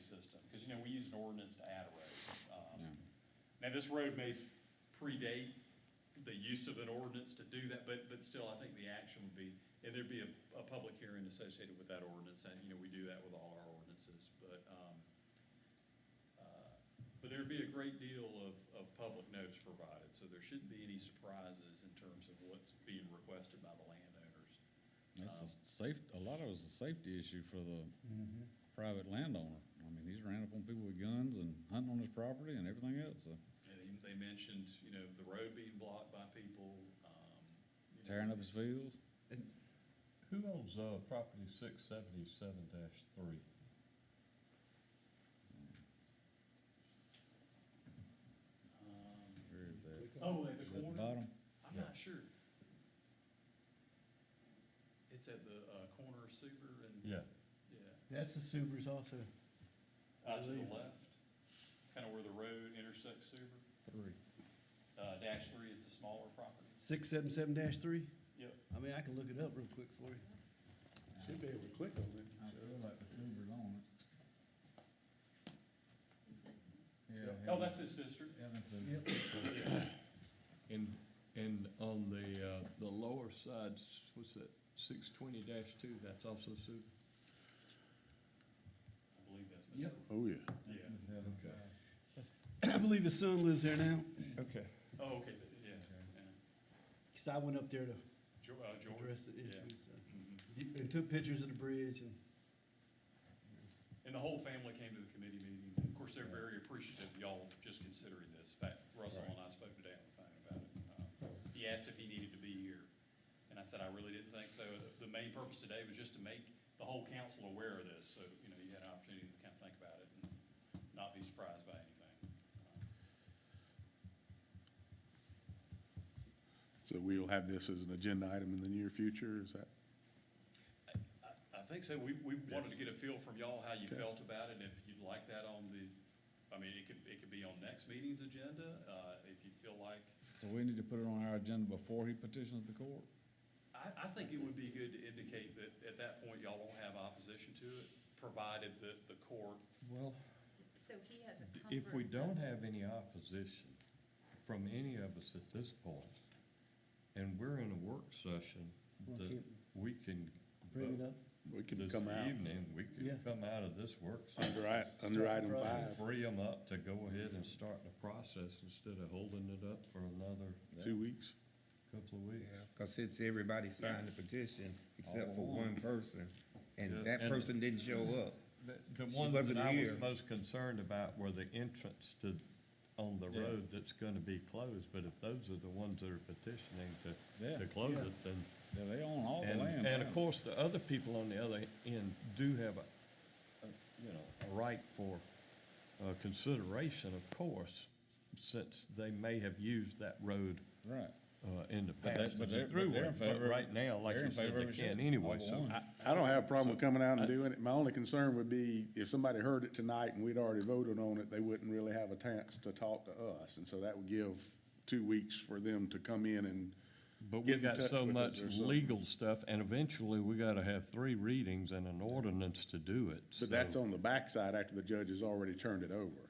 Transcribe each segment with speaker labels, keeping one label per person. Speaker 1: system, because, you know, we use an ordinance to add a road. Um, Now, this road may predate the use of an ordinance to do that, but, but still, I think the action would be, and there'd be a, a public hearing associated with that ordinance, and, you know, we do that with all our ordinances, but, um, uh, but there'd be a great deal of, of public notice provided, so there shouldn't be any surprises in terms of what's being requested by the landowners.
Speaker 2: That's a safe, a lot of it's a safety issue for the
Speaker 3: Mm-hmm.
Speaker 2: private landowner. I mean, he's ran up on people with guns and hunting on his property and everything else, uh, so
Speaker 1: And they they mentioned, you know, the road being blocked by people, um. you know,
Speaker 2: tearing up his fields.
Speaker 4: Who owns, uh, property six seventy-seven dash three?
Speaker 1: um,
Speaker 2: Sure, that-
Speaker 1: Oh, at the
Speaker 2: is that the
Speaker 1: corner?
Speaker 2: Bottom,
Speaker 1: I'm not sure. It's at the, uh, corner of Super and.
Speaker 4: Yeah,
Speaker 1: Yeah,
Speaker 3: That's the Subarus also.
Speaker 1: uh, to the
Speaker 3: Believe it.
Speaker 1: left, kinda where the road intersects Super.
Speaker 3: Three.
Speaker 1: Uh, dash three is the smaller property.
Speaker 3: Six seven seven dash three?
Speaker 1: Yep.
Speaker 3: I mean, I can look it up real quick for you.
Speaker 5: Should be able to click on it.
Speaker 2: I feel like the silver's on it. Yeah.
Speaker 1: Oh, that's his sister.
Speaker 2: Evan's a-
Speaker 1: Yeah.
Speaker 4: and, and on the, uh, the lower side, s- what's that, six twenty dash two, that's also super?
Speaker 1: I believe that's. Mr.
Speaker 3: Yep.
Speaker 5: Oh, yeah.
Speaker 1: Yeah.
Speaker 2: Miss Evans.
Speaker 4: Okay.
Speaker 3: I believe his son lives there now,
Speaker 4: Okay.
Speaker 1: Oh, okay, yeah, yeah.
Speaker 3: because I went up there to
Speaker 1: Jo- uh, George.
Speaker 3: address the
Speaker 1: Yeah.
Speaker 3: issue, so.
Speaker 1: Mhm.
Speaker 3: And took pictures of the bridge and.
Speaker 1: And the whole family came to the committee meeting. Of course, they're very appreciative of y'all just considering this. In fact, Russell and I spoke today on the phone about it. Uh, He asked if he needed to be here, and I said I really didn't think so. The- The main purpose today was just to make the whole council aware of this, so, you know, you had an opportunity to kind of think about it and not be surprised by anything.
Speaker 5: So we'll have this as an agenda item in the near future, is that?
Speaker 1: I think so. We, we wanted to get a feel from y'all how you
Speaker 5: Okay.
Speaker 1: felt about it, and if you'd like that on the, I mean, it could, it could be on next meeting's agenda, uh, if you feel like.
Speaker 2: So we need to put it on our agenda before he petitions the court?
Speaker 1: I, I think it would be good to indicate that at that point, y'all don't have opposition to it, provided that the court,
Speaker 4: Well,
Speaker 6: So he has a comfort.
Speaker 4: if we don't have any opposition from any of us at this point, and we're in a work session,
Speaker 3: Well,
Speaker 4: that
Speaker 3: can't-
Speaker 4: we can
Speaker 3: Bring it
Speaker 4: vote
Speaker 3: up.
Speaker 5: We can
Speaker 4: this
Speaker 5: come out
Speaker 4: evening, we
Speaker 3: Yeah.
Speaker 4: could come out of this work session.
Speaker 5: under, i- under item
Speaker 4: and
Speaker 5: five,
Speaker 4: Free them up to go ahead and start the process instead of holding it up for another
Speaker 5: two weeks.
Speaker 4: couple of weeks.
Speaker 7: Because it's everybody signed the petition except for
Speaker 4: All
Speaker 7: one person,
Speaker 4: Yeah,
Speaker 7: and that
Speaker 4: and-
Speaker 7: person didn't show up.
Speaker 4: The- The
Speaker 7: She
Speaker 4: ones that
Speaker 7: wasn't
Speaker 4: I
Speaker 7: here.
Speaker 4: was most concerned about were the entrance to, on the
Speaker 2: Yeah.
Speaker 4: road that's gonna be closed, but if those are the ones that are petitioning to,
Speaker 2: Yeah.
Speaker 4: to close
Speaker 3: Yeah.
Speaker 4: it, then.
Speaker 2: Yeah, they own all the
Speaker 4: And,
Speaker 2: land.
Speaker 4: and of
Speaker 2: now.
Speaker 4: course, the other people on the other end do have a, a, you know, a right for, uh, consideration, of course, since they may have used that road,
Speaker 2: Right.
Speaker 4: uh, in the
Speaker 2: But that-
Speaker 4: past
Speaker 2: but
Speaker 4: as
Speaker 2: they're-
Speaker 4: a
Speaker 2: but they're in
Speaker 4: throughway. But
Speaker 2: favor-
Speaker 4: right now, like
Speaker 2: they're
Speaker 4: you
Speaker 2: in
Speaker 4: said,
Speaker 2: favor
Speaker 4: they
Speaker 2: of it,
Speaker 4: can't
Speaker 2: sure.
Speaker 4: anyway,
Speaker 2: Number
Speaker 4: so
Speaker 2: one.
Speaker 5: I, I don't have a problem with coming out and doing it. My only concern would be if somebody heard it tonight and we'd already voted on it, they wouldn't really have a chance to talk to us. And so that would give two weeks for them to come in and,
Speaker 4: But we
Speaker 5: get in
Speaker 4: got
Speaker 5: touch
Speaker 4: so
Speaker 5: with us
Speaker 4: much
Speaker 5: or something.
Speaker 4: legal stuff, and eventually we gotta have three readings and an ordinance to do it. so-
Speaker 5: but that's on the backside after the judge has already turned it over.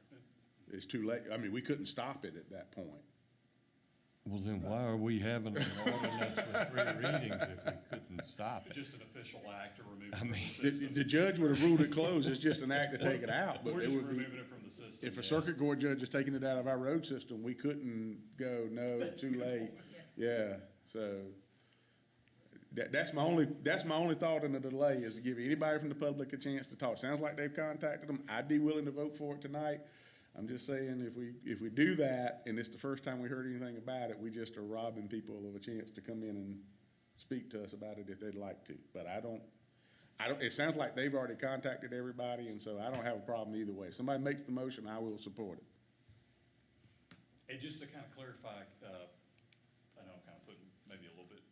Speaker 5: It's too late. I mean, we couldn't stop it at that point.
Speaker 4: Well, then why are we having an ordinance with three readings if we couldn't stop it?
Speaker 1: just an official act to remove it from the
Speaker 5: The,
Speaker 1: system.
Speaker 5: the judge would have ruled it closed. It's just an act to take it out, but
Speaker 1: We're
Speaker 5: it
Speaker 1: just
Speaker 5: would be.
Speaker 1: removing it from the system.
Speaker 5: If
Speaker 1: yeah.
Speaker 5: a circuit court judge is taking it out of our road system, we couldn't go, no, too late. Yeah, so that, that's my only, that's my only thought in the delay is to give anybody from the public a chance to talk. Sounds like they've contacted them. I'd be willing to vote for it tonight. I'm just saying if we, if we do that and it's the first time we heard anything about it, we just are robbing people of a chance to come in and speak to us about it if they'd like to. But I don't, I don't, it sounds like they've already contacted everybody, and so I don't have a problem either way. If somebody makes the motion, I will support it.
Speaker 1: And just to kind of clarify, uh, I know I'm kind of putting maybe a little bit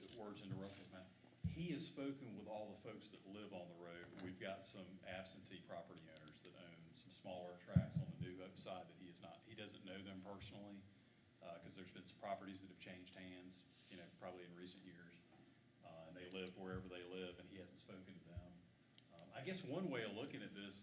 Speaker 1: of words into Russell's mouth. He has spoken with all the folks that live on the road. We've got some absentee property owners that own some smaller tracts on the New Hope side that he is not, he doesn't know them personally, uh, because there's been some properties that have changed hands, you know, probably in recent years. Uh, and they live wherever they live, and he hasn't spoken to them. Um, I guess one way of looking at this